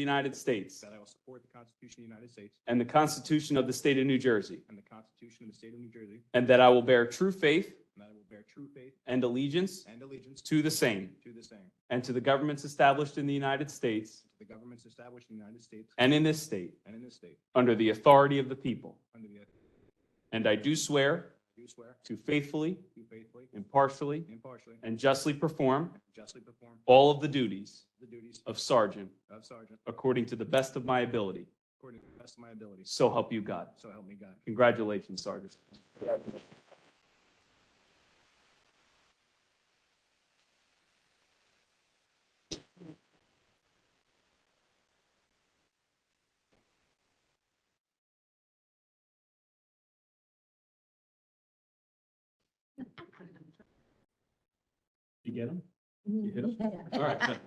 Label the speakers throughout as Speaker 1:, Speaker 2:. Speaker 1: the United States
Speaker 2: that I will support the Constitution of the United States
Speaker 1: and the Constitution of the State of New Jersey,
Speaker 2: and the Constitution of the State of New Jersey,
Speaker 1: and that I will bear true faith
Speaker 2: and that I will bear true faith
Speaker 1: and allegiance
Speaker 2: and allegiance
Speaker 1: to the same
Speaker 2: to the same, and
Speaker 1: and to the governments established in the United States
Speaker 2: to the governments established in the United States
Speaker 1: and in this state
Speaker 2: and in this state,
Speaker 1: under the authority of the people.
Speaker 2: under the oath
Speaker 1: And I do swear
Speaker 2: I do swear
Speaker 1: to faithfully,
Speaker 2: to faithfully,
Speaker 1: impartially,
Speaker 2: impartially, and
Speaker 1: and justly perform
Speaker 2: justly perform
Speaker 1: all of the duties
Speaker 2: the duties
Speaker 1: of sergeant
Speaker 2: of sergeant
Speaker 1: according to the best of my ability.
Speaker 2: according to the best of my ability,
Speaker 1: So help you God.
Speaker 2: so help me God.
Speaker 1: Congratulations, Sergeant. You get him? You hit him? All right. good.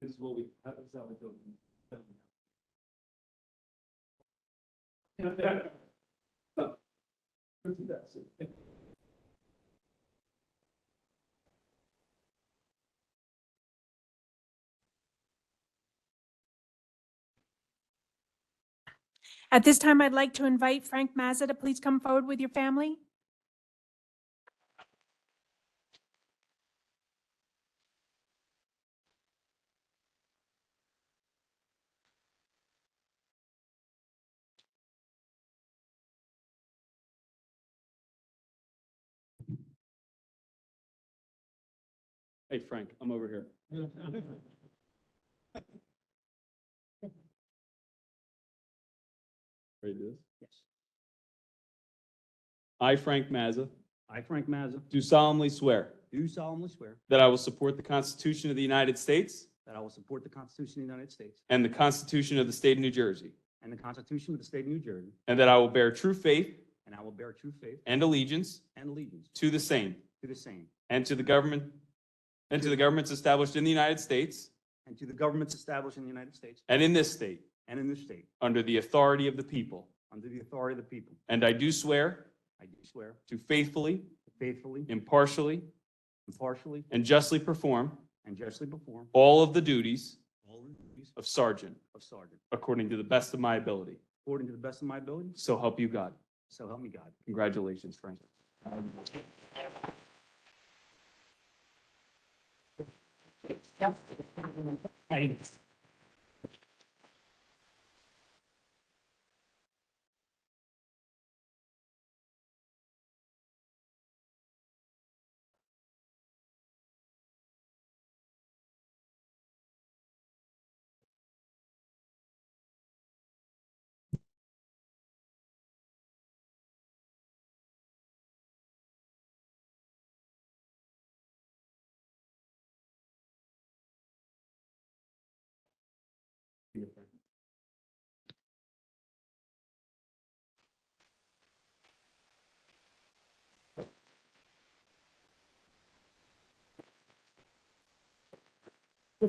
Speaker 1: This is what we, how does that look?
Speaker 3: At this time, I'd like to invite Frank Mazza to please come forward with your family.
Speaker 1: Hey Frank, I'm over here. Ready to do this?
Speaker 4: Yes.
Speaker 1: I, Frank Mazza,
Speaker 4: I, Frank Mazza,
Speaker 1: do solemnly swear
Speaker 4: do solemnly swear
Speaker 1: that I will support the Constitution of the United States
Speaker 4: that I will support the Constitution of the United States
Speaker 1: and the Constitution of the State of New Jersey,
Speaker 4: and the Constitution of the State of New Jersey,
Speaker 1: and that I will bear true faith
Speaker 4: and I will bear true faith
Speaker 1: and allegiance
Speaker 4: and allegiance
Speaker 1: to the same
Speaker 4: to the same
Speaker 1: and to the government and to the governments established in the United States
Speaker 4: and to the governments established in the United States
Speaker 1: and in this state
Speaker 4: and in this state,
Speaker 1: under the authority of the people.
Speaker 4: under the authority of the people.
Speaker 1: And I do swear
Speaker 4: I do swear
Speaker 1: to faithfully,
Speaker 4: to faithfully,
Speaker 1: impartially,
Speaker 4: impartially,
Speaker 1: and justly perform
Speaker 4: and justly perform
Speaker 1: all of the duties
Speaker 4: all the duties
Speaker 1: of sergeant
Speaker 4: of sergeant
Speaker 1: according to the best of my ability.
Speaker 4: according to the best of my ability,
Speaker 1: So help you God.
Speaker 4: so help me God.
Speaker 1: Congratulations, Frank.
Speaker 4: I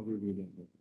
Speaker 4: will read it.